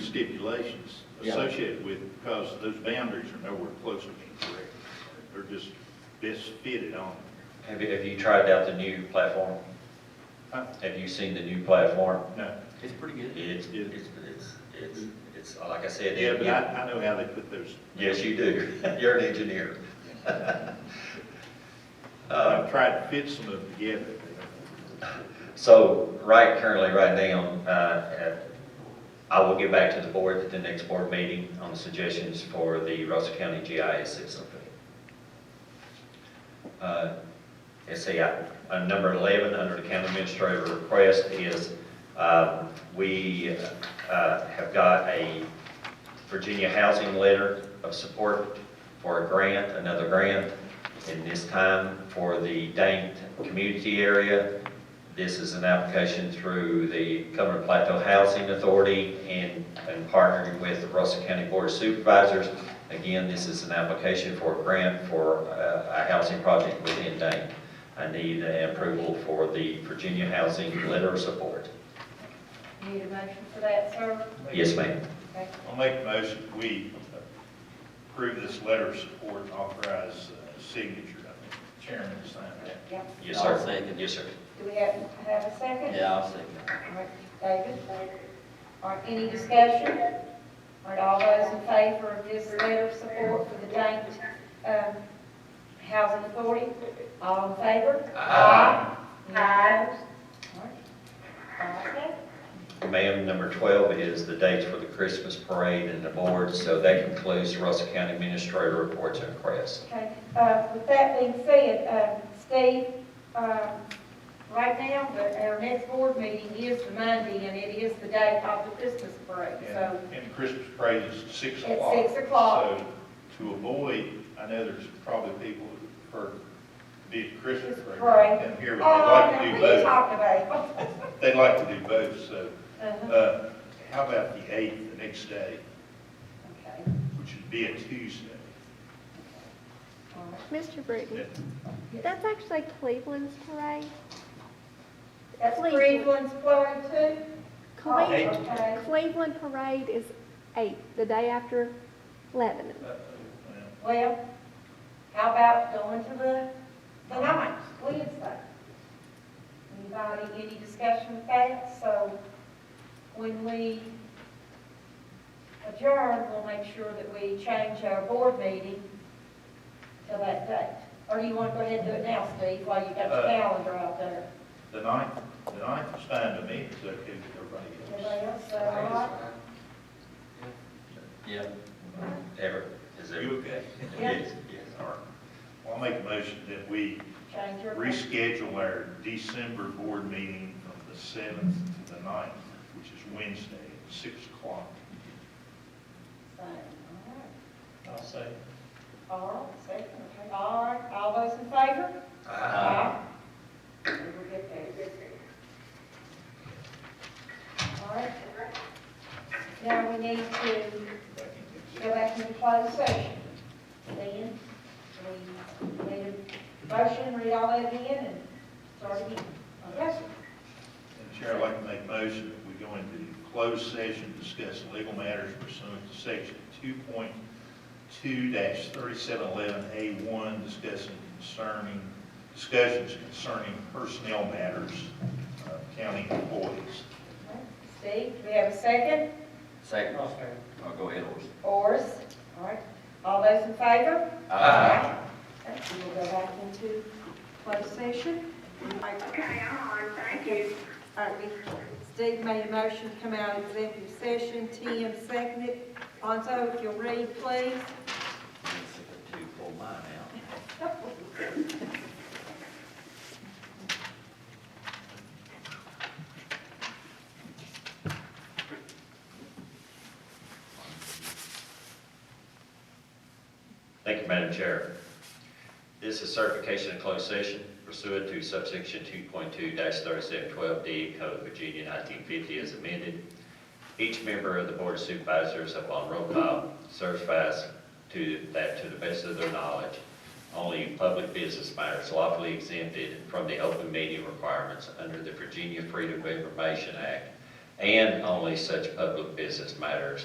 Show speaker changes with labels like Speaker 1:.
Speaker 1: stipulations
Speaker 2: Yeah.
Speaker 1: associated with, it because those boundaries are nowhere close to being correct. They're just best fitted on.
Speaker 3: Have you, have you tried out the new platform?
Speaker 1: Huh?
Speaker 3: Have you seen the new platform?
Speaker 1: No,
Speaker 4: It's pretty good.
Speaker 3: It's,
Speaker 1: Yeah.
Speaker 3: it's, it's, it's, it's, like I said.
Speaker 1: yeah, but
Speaker 3: it-
Speaker 1: I, I know how they put those,
Speaker 3: Yes, you do. You're an engineer. Uh,
Speaker 1: I've tried to fit some of them together.
Speaker 3: So, right, currently, right now, uh, uh, I will get back to the board at the next board meeting on suggestions for the Russell County GIS system. oh Uh, Let's see, uh, uh, number 11, under the county administrator request is, um, we uh, have got a Virginia Housing Letter of Support for a grant, another grant, and this time for the Dane Community Area. This is an application through the Cumberland Plateau Housing Authority and, and partnering with the Russell County Board of Supervisors. Again, this is an application for a grant for uh, a housing project within Dane. I need an approval for the Virginia Housing Letter of Support.
Speaker 5: Need a motion for that, sir?
Speaker 3: Yes, ma'am.
Speaker 5: Okay.
Speaker 1: I'll make a motion, we approve this letter of support and authorize uh, signature. I think the Chairman to sign that.
Speaker 5: Yep.
Speaker 3: Yes,
Speaker 4: I'll
Speaker 3: sir.
Speaker 4: second.
Speaker 3: Yes, sir.
Speaker 5: Do we have, have a second?
Speaker 4: Yeah, I'll second.
Speaker 5: All right, David? All right, any discussion? All right, all those in favor of this letter of support for the Dane, um, Housing Authority? All in favor?
Speaker 3: Aye.
Speaker 5: Any opposed? All right. All right.
Speaker 3: Ma'am, number 12 is the dates for the Christmas parade and the board, so that concludes the Russell County Administrator reports and requests.
Speaker 5: Okay, uh, with that being said, uh, Steve, uh, right now, the- our next board meeting is the Monday, and it is the day of the Christmas parade, so.
Speaker 1: And and Christmas parade is six
Speaker 5: At
Speaker 1: o'clock.
Speaker 5: six o'clock.
Speaker 1: So to avoid, I know there's probably people who prefer to be at Christmas
Speaker 5: Christmas
Speaker 1: parade
Speaker 5: parade.
Speaker 1: than here,
Speaker 5: Oh,
Speaker 1: but they'd like
Speaker 5: now,
Speaker 1: to do
Speaker 5: what are
Speaker 1: both.
Speaker 5: you talking about?
Speaker 1: They'd like to do both, so,
Speaker 5: Uh-huh,
Speaker 1: uh, how about the eighth, the next day,
Speaker 5: okay,
Speaker 1: which would be a Tuesday?
Speaker 5: all right.
Speaker 6: Mr. Britton,
Speaker 1: That-
Speaker 6: that's actually Cleveland's parade.
Speaker 5: That's
Speaker 6: Cleveland.
Speaker 5: Cleveland's parade too? Oh,
Speaker 6: Cle-
Speaker 1: Eight.
Speaker 5: Okay,
Speaker 6: Cleveland parade is eight, the day after Lebanon.
Speaker 1: uh, well,
Speaker 5: well, how about going to the, the ninth, Wednesday? Anybody, any discussion with that? So when we adjourn, we'll make sure that we change our board meeting to that date. Or do you want to go ahead and do it now, Steve, while you got your
Speaker 1: Uh,
Speaker 5: calendar out there?
Speaker 1: The ninth, the ninth is fine to me, it's okay with everybody else.
Speaker 5: Anybody else, is that all right?
Speaker 4: Yeah.
Speaker 3: Ever, is there?
Speaker 1: You okay?
Speaker 5: Yeah.
Speaker 3: Yes, yes, all right.
Speaker 1: Well, I'll make a motion that we
Speaker 5: Change your.
Speaker 1: reschedule our December board meeting from the seventh to the 9th, which is Wednesday at six o'clock.
Speaker 5: All right.
Speaker 1: I'll say.
Speaker 5: All right, second, okay, all right, all those in favor?
Speaker 4: Aye.
Speaker 5: We'll get there. All right. Now we need to go back into closed session. Then, we need a motion, read all that again, and start again. Okay?
Speaker 1: And Chair, I'd like to make a motion that we go into closed session, discuss legal matters pursuant to section two point two thirty-seven eleven A one, discussing concerning, discussions concerning personnel matters, uh, county employees.
Speaker 5: Steve, do we have a second?
Speaker 4: Second. I'll go ahead, Orson.
Speaker 5: Oars? All right, all those in favor?
Speaker 4: Aye.
Speaker 5: Okay, we will go back into closed session.
Speaker 7: Okay, I'm on, thank you.
Speaker 5: All right, we- Steve made a motion to come out of executive session, Tim seconded. Lonzo, if you'll read, please.
Speaker 4: Two, pull mine out.
Speaker 3: Thank you, Madam Chair. This is certification of closed session pursuant to subsection 2.2-3712D Code of Virginia 1950 as amended. Each member of the Board of Supervisors upon roll call certifies to that to the best of their knowledge, only public business matters lawfully exempted from the open meeting requirements under the Virginia Freedom of Information Act, and only such public business matters